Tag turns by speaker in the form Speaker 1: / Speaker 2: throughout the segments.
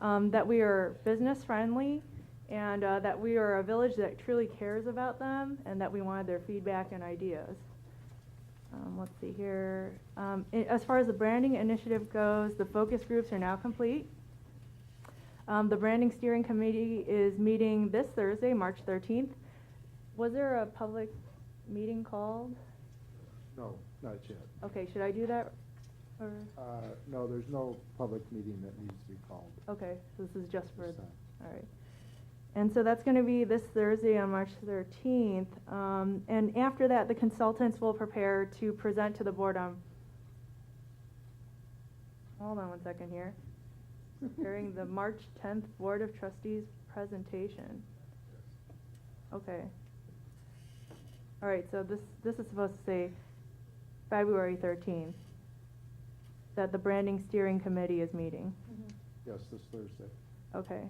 Speaker 1: um, that we are business friendly and uh, that we are a village that truly cares about them and that we wanted their feedback and ideas. Um, let's see here. Um, i- as far as the branding initiative goes, the focus groups are now complete. Um, the branding steering committee is meeting this Thursday, March 13th. Was there a public meeting called?
Speaker 2: No, not yet.
Speaker 1: Okay, should I do that? Or,
Speaker 2: Uh, No, there's no public meeting that needs to be called.
Speaker 1: okay, so this is just for,
Speaker 2: This time.
Speaker 1: all right. And so that's gonna be this Thursday on March thirteenth. Um, and after that, the consultants will prepare to present to the board on, hold on one second here, during the March tenth Board of Trustees presentation. Okay. All right, so this, this is supposed to say February thirteenth, that the branding steering committee is meeting.
Speaker 3: Mm-hmm.
Speaker 2: Yes, this Thursday.
Speaker 1: Okay.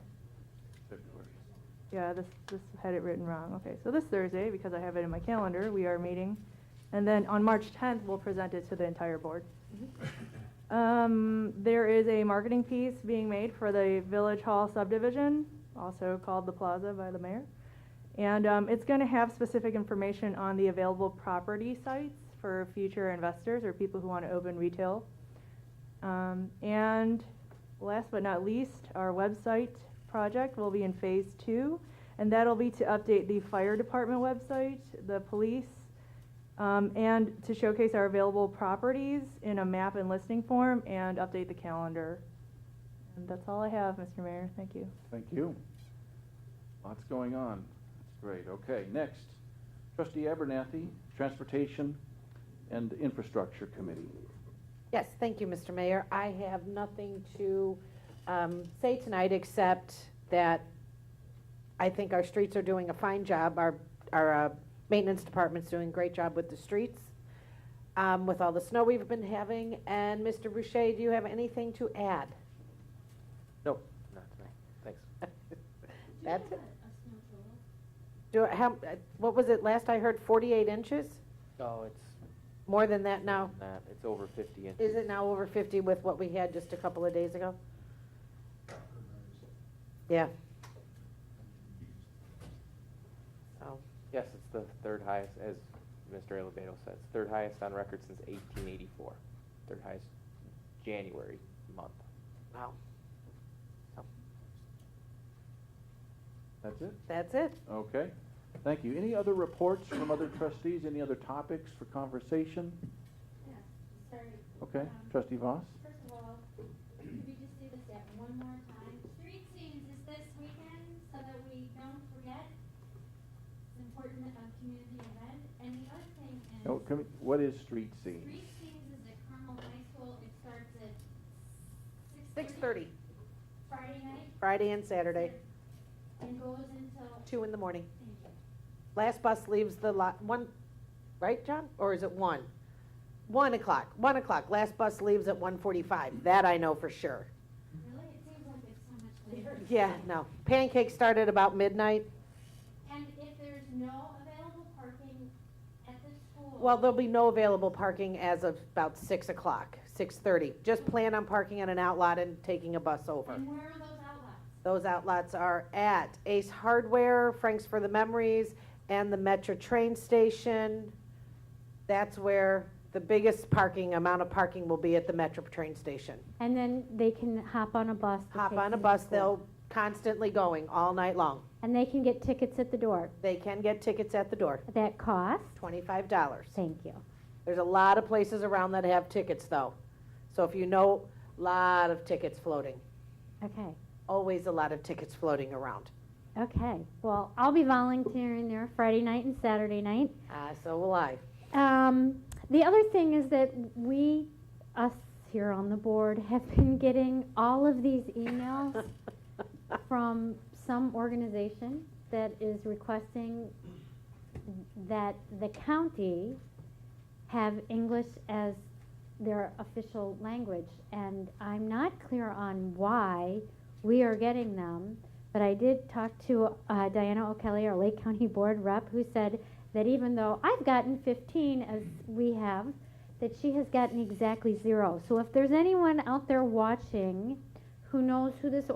Speaker 1: Yeah, this, this had it written wrong. Okay, so this Thursday, because I have it in my calendar, we are meeting. And then on March tenth, we'll present it to the entire board. Um, there is a marketing piece being made for the Village Hall subdivision, also called the Plaza by the mayor. And, um, it's gonna have specific information on the available property sites for future investors or people who wanna open retail. Um, and last but not least, our website project will be in phase two. And that'll be to update the fire department website, the police, um, and to showcase our available properties in a map and listing form and update the calendar. And that's all I have, Mr. Mayor. Thank you.
Speaker 4: Thank you. Lots going on. That's Great, okay, next. Trustee Abernathy, Transportation and Infrastructure Committee.
Speaker 5: Yes, thank you, Mr. Mayor. I have nothing to um, say tonight, except that I think our streets are doing a fine job. Our, our uh, maintenance department's doing a great job with the streets, um, with all the snow we've been having. And Mr. Boucher, do you have anything to add?
Speaker 6: No, not tonight, thanks.
Speaker 5: That's it. Do, I- how, uh, what was it, last I heard, 48 inches?
Speaker 6: Oh, it's
Speaker 5: More than that now?
Speaker 6: not, it's over fifty inches.
Speaker 5: Is it now over 50 with what we had just a couple of days ago? Yeah. So,
Speaker 6: Yes, it's the third highest, as Mr. Elevato says, third highest on record since eighteen eighty-four. Third highest January month.
Speaker 5: wow,
Speaker 4: That's it?
Speaker 5: that's it.
Speaker 4: Okay, thank you. Any other reports from other trustees, any other topics for conversation?
Speaker 3: Yeah, sorry.
Speaker 4: Okay,
Speaker 3: Um,
Speaker 4: trustee Voss?
Speaker 3: First of all, could we just do this at one more time? Street scenes is this weekend, so that we don't forget. It's important a community event, and the other thing is.
Speaker 4: No, Oh, come- What is street scene?
Speaker 3: Street scenes is at Carmel High School, it starts at six
Speaker 5: 6:30,
Speaker 3: Friday night.
Speaker 5: Friday and Saturday,
Speaker 3: And goes until,
Speaker 5: 2 in the morning.
Speaker 3: thank you.
Speaker 5: Last bus leaves the lot, 1, right, John? Or is it 1? 1 o'clock, 1 o'clock, last bus leaves at 1:45, that I know for sure.
Speaker 3: Really, it seems like it's so much later.
Speaker 5: Yeah, no, pancakes start at about midnight.
Speaker 3: And if there's no available parking at the school.
Speaker 5: Well, there'll be no available parking as of about 6 o'clock, 6:30. Just plan on parking at an outlot and taking a bus over.
Speaker 3: And where are those outlets?
Speaker 5: Those outlets are at Ace Hardware, Frank's for the Memories, and the Metro Train Station. That's where the biggest parking, amount of parking will be at the Metro Train Station.
Speaker 7: And then they can hop on a bus. to
Speaker 5: Hop
Speaker 7: take
Speaker 5: on a
Speaker 7: them to
Speaker 5: bus,
Speaker 7: school.
Speaker 5: they'll constantly going all night long.
Speaker 7: And they can get tickets at the door.
Speaker 5: They can get tickets at the door,
Speaker 7: That cost?
Speaker 5: $25.
Speaker 7: Thank you.
Speaker 5: There's a lot of places around that have tickets, though. So if you know, lot of tickets floating,
Speaker 7: Okay,
Speaker 5: always a lot of tickets floating around.
Speaker 7: okay. Well, I'll be volunteering there Friday night and Saturday night.
Speaker 5: Uh, so will I.
Speaker 7: Um, the other thing is that we, us here on the board, have been getting all of these emails from some organization that is requesting that the county have English as their official language. And I'm not clear on why we are getting them, but I did talk to uh, Diana O'Kelly, our Lake County Board rep, who said that even though I've gotten 15 as we have, that she has gotten exactly zero. So if there's anyone out there watching who knows who this